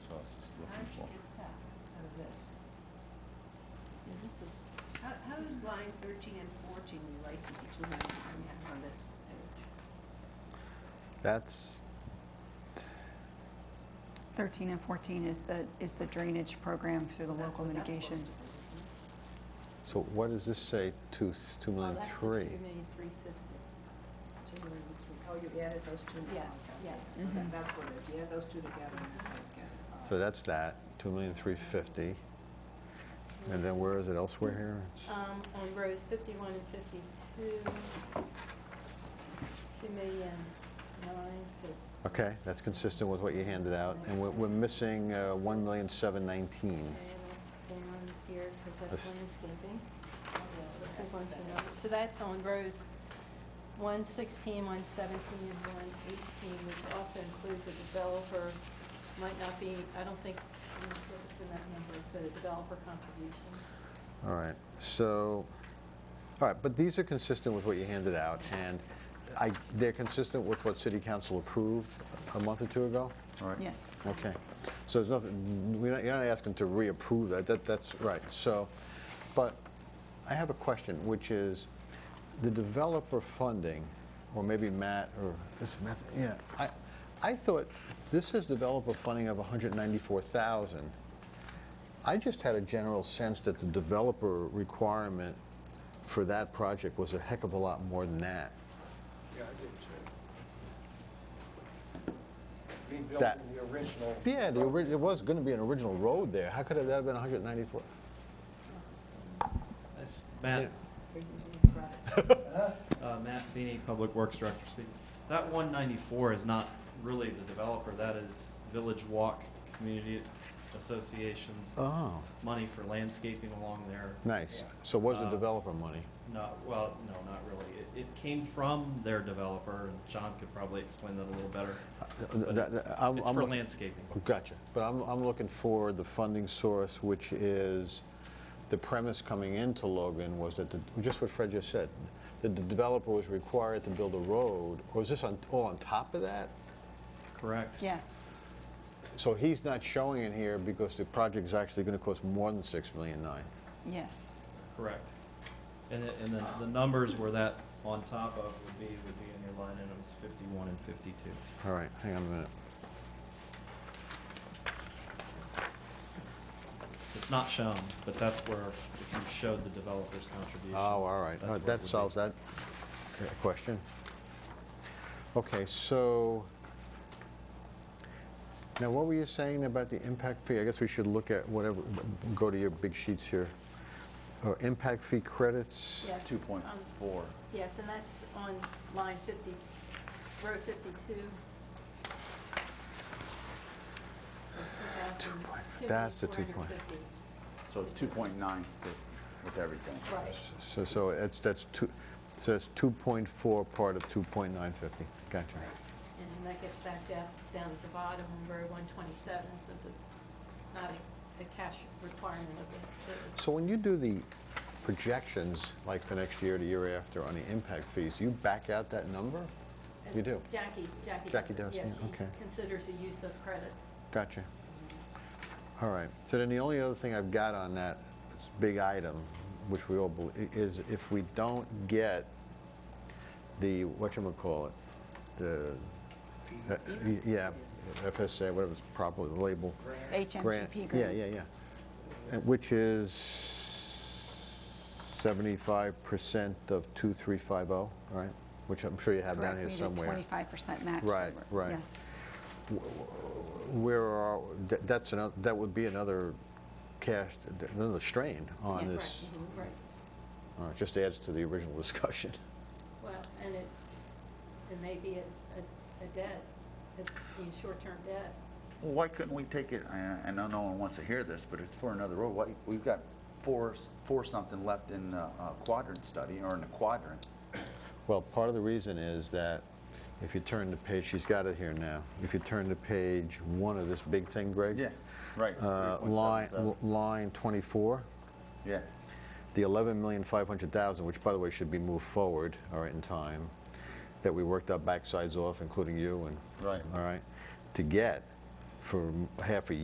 this is, how, how is line thirteen and fourteen related to the two hundred and one on this page? That's, 13 and 14 is the, is the drainage program through the That's local what that's mitigation. supposed to be, isn't it? so what does this say, two, two Oh, million that's three? Two million three fifty. Two million three. Oh, you added those two? Yes, Okay. yes. So Mm-hmm. that- that's what it is, you add those two together and that's how you get it. uh, So that's that, two million three fifty. And then where is it elsewhere here? Uh, It's- Um, on rows fifty-one and fifty-two, two million nine fifty. Okay, that's consistent with what you handed out, and we're, we're missing uh, one million seven nineteen. Down here, because that's That's- landscaping. There's one, two, no. So that's on rows one sixteen, one seventeen, and one eighteen, which also includes a developer, might not be, I don't think, I'm not sure if it's in that number, but a developer contribution. All right, so, all right, but these are consistent with what you handed out, and I, they're consistent with what city council approved a month or two ago? All right. Yes. Okay, so there's nothing, we're not, you're not asking to reapprove that, that, that's right, so, but I have a question, which is, the developer funding, or maybe Matt, or, is Matt, yeah, I, I thought, this is developer funding of 194,000. I just had a general sense that the developer requirement for that project was a heck of a lot more than that. Yeah, I did too. We built That- in the original. Yeah, the, ori- it was gonna be an original road there, how could that have been 194? That's Matt, uh, Matt Feeney, Public Works Director speaking. That one ninety-four is not really the developer, that is Village Walk Community Association's Oh. money for landscaping along there. Nice. So was the Uh, developer money? Not, well, no, not really. It, it came from their developer, and John could probably explain that a little better. but That- that- I'm- It's I'm for look- landscaping. Gotcha. But I'm, I'm looking for the funding source, which is, the premise coming into Logan was that, the just what Fred just said, that the developer was required to build a road, or is this on, all on top of that? Correct? Yes. So he's not showing it here because the project's actually gonna cost more than six million nine. Yes. Correct. And, the- and the, the numbers where that on top of would be, would be in your line items fifty-one and fifty-two. All right, hang on a minute. It's not shown, but that's where, if you showed the developer's contribution. Oh, all right. that's Uh, where it would That be. solves that uh, question. Okay, so, now what were you saying about the impact fee? I guess we should look at whatever, go to your big sheets here. Or impact fee credits? Yes. Two point Um, four. Yes, and that's on line 50, row 52. Two point- that's the two point. 2,450. So two point nine with everything. Right, So, so it's, that's two, so it's 2.4 part of 2.950. Gotcha. and then that gets back down, down at the bottom, on row 127, since it's not a- a cash requirement of the city. So when you do the projections, like for next year, the year after, on the impact fees, you back out that number? You do? Jackie, Jackie. Jackie does, yeah, okay. she considers the use of credits. Gotcha. All right. So then the only other thing I've got on that big item, which we all, bel- i- is if we don't get the, whatchamacallit, the, uh, y- yeah, FSA, whatever it's properly labeled. grant. HMGP grant. Yeah, yeah, yeah. And Which is 75% of 2350, oh, right? Which I'm sure you have down Correct. here We did somewhere. 25% match. so Right, we're- right. Yes. Where are, that- that's another, that would be another cast, another strain on Yes. this. Right, mhm, Right. Uh, It just adds to the original discussion. Well, and it, it may be a, a- a debt, a a short-term debt. Well, why couldn't we take it, I- I know no one wants to hear this, but it's for another road. Why, we've got four, s- four something left in the uh, quadrant study, or in the quadrant. Well, part of the reason is that if you turn the page, she's got it here now. If you turn to page one of this big thing, Greg. Yeah, right, it's uh, Line, 3.77. line 24. Yeah, the 11,500,000, which by the way should be moved forward, all right, in time, that we worked our backsides off, including you and, Right. all right, to get for half a